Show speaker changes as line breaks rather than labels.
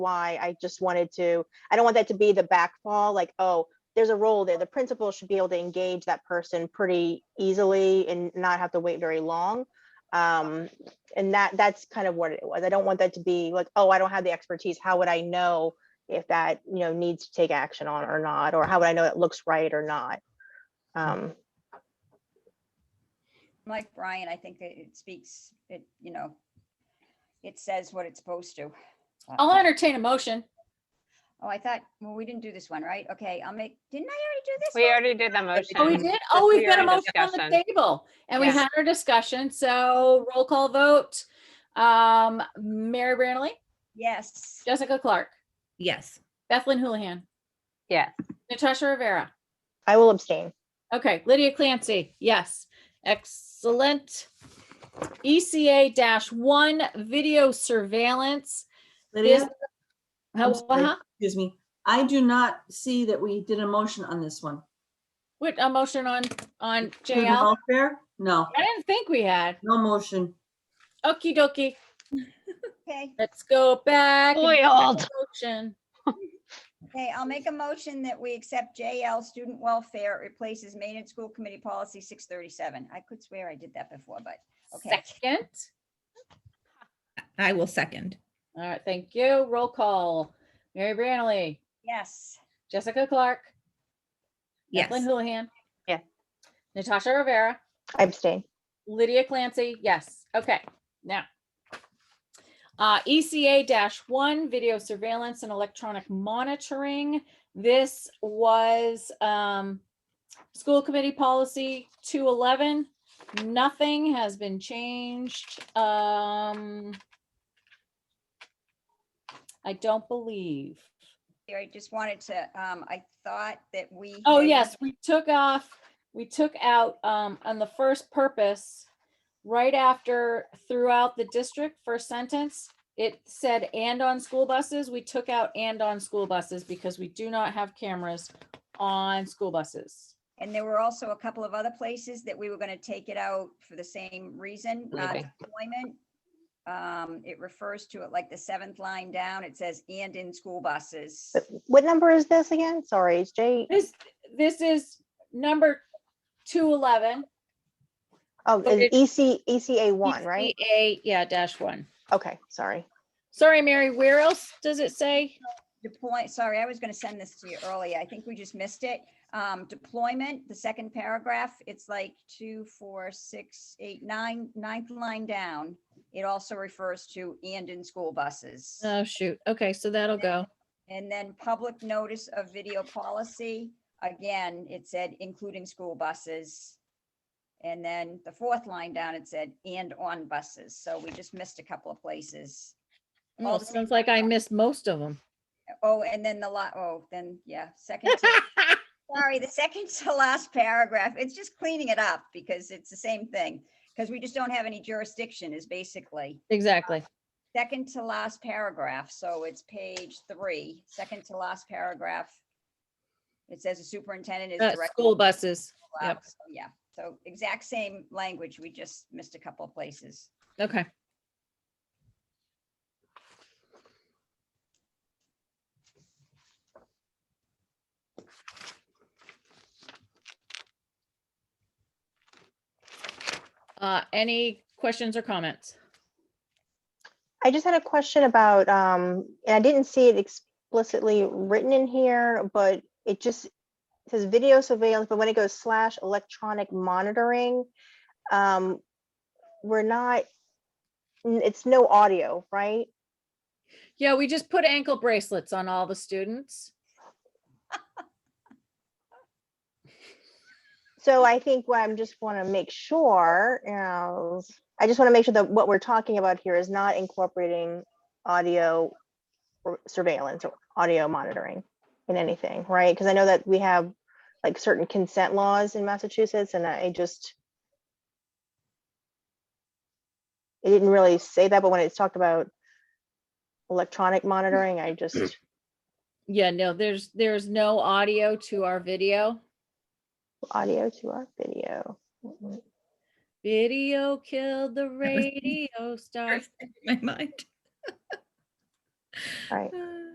why I just wanted to, I don't want that to be the backfall, like, oh, there's a role there. The principal should be able to engage that person pretty easily and not have to wait very long. Um, and that, that's kind of what it was. I don't want that to be like, oh, I don't have the expertise. How would I know if that, you know, needs to take action on or not? Or how would I know it looks right or not? Um,
like Brian, I think it it speaks, it, you know, it says what it's supposed to. Uh,
I'll entertain a motion.
Oh, I thought, well, we didn't do this one, right? Okay, I'll make, didn't I already do this?
We
one?
already did the motion.
Oh, we did? Oh, we've got a
already
motion on the
discussion.
table and we
Yeah.
had our discussion. So roll call vote. Um, Mary Branley,
Yes.
Jessica Clark,
Yes.
Bethlyn Houlihan,
Yes.
Natasha Rivera.
I will abstain.
Okay, Lydia Clancy, yes. Excellent. ECA dash one video surveillance.
Lydia,
This- How-
sorry.
huh?
excuse me, I do not see that we did a motion on this one.
What, a motion on, on
Food and
JL?
welfare? No,
I didn't think we had.
no motion.
Okie dokie,
Okay,
let's go back. and
Boy, old.
Motion.
okay, I'll make a motion that we accept JL Student Welfare replaces Maine and School Committee Policy six thirty-seven. I could swear I did that before, but, okay.
Second.
I will second.
All right, thank you. Roll call. Mary Branley,
Yes,
Jessica Clark,
Yes.
Evelyn Houlihan.
Yeah.
Natasha Rivera,
I abstain.
Lydia Clancy, yes. Okay, now. Uh, ECA dash one, video surveillance and electronic monitoring. This was, um, school committee policy two eleven. Nothing has been changed. Um, I don't believe.
I just wanted to, um, I thought that we.
Oh,
had-
yes, we took off, we took out, um, on the first purpose, right after throughout the district, first sentence, it said and on school buses, we took out and on school buses because we do not have cameras on school buses.
And there were also a couple of other places that we were gonna take it out for the same reason, not
Leaving.
deployment. Um, it refers to it like the seventh line down, it says and in school buses.
What number is this again? Sorry, it's J.
This, this is number two eleven.
Oh,
but it-
it's EC, ECA one, right?
E A, yeah, dash one.
Okay, sorry.
Sorry, Mary, where else does it say?
Deploy, sorry, I was gonna send this to you earlier, I think we just missed it. Um, deployment, the second paragraph, it's like two, four, six, eight, nine, ninth line down. It also refers to and in school buses.
Oh, shoot. Okay, so that'll go.
And then public notice of video policy, again, it said including school buses. And then the fourth line down, it said and on buses, so we just missed a couple of places.
Oh, Sounds like I missed most of them.
Oh, and then the lot, oh, then, yeah, second. to- Sorry, the second to last paragraph, it's just cleaning it up because it's the same thing. Because we just don't have any jurisdiction is basically
Exactly.
second to last paragraph, so it's page three, second to last paragraph. It says the superintendent is.
Uh,
directed
School
to
buses.
allow-
yep.
so, Yeah, so exact same language, we just missed a couple of places.
Okay. Uh, any questions or comments?
I just had a question about, um, and I didn't see it explicitly written in here, but it just says video surveillance, but when it goes slash electronic monitoring, um, we're not, n- it's no audio, right?
Yeah, we just put ankle bracelets on all the students.
So I think what I'm just want to make sure, you know, I just want to make sure that what we're talking about here is not incorporating audio or surveillance or audio monitoring in anything, right? Because I know that we have like certain consent laws in Massachusetts and I just it didn't really say that, but when it's talked about electronic monitoring, I just,
Yeah, no, there's, there's no audio to our video.
audio to our video. Mm-hmm.
Video killed the radio star.
My mind.
Right.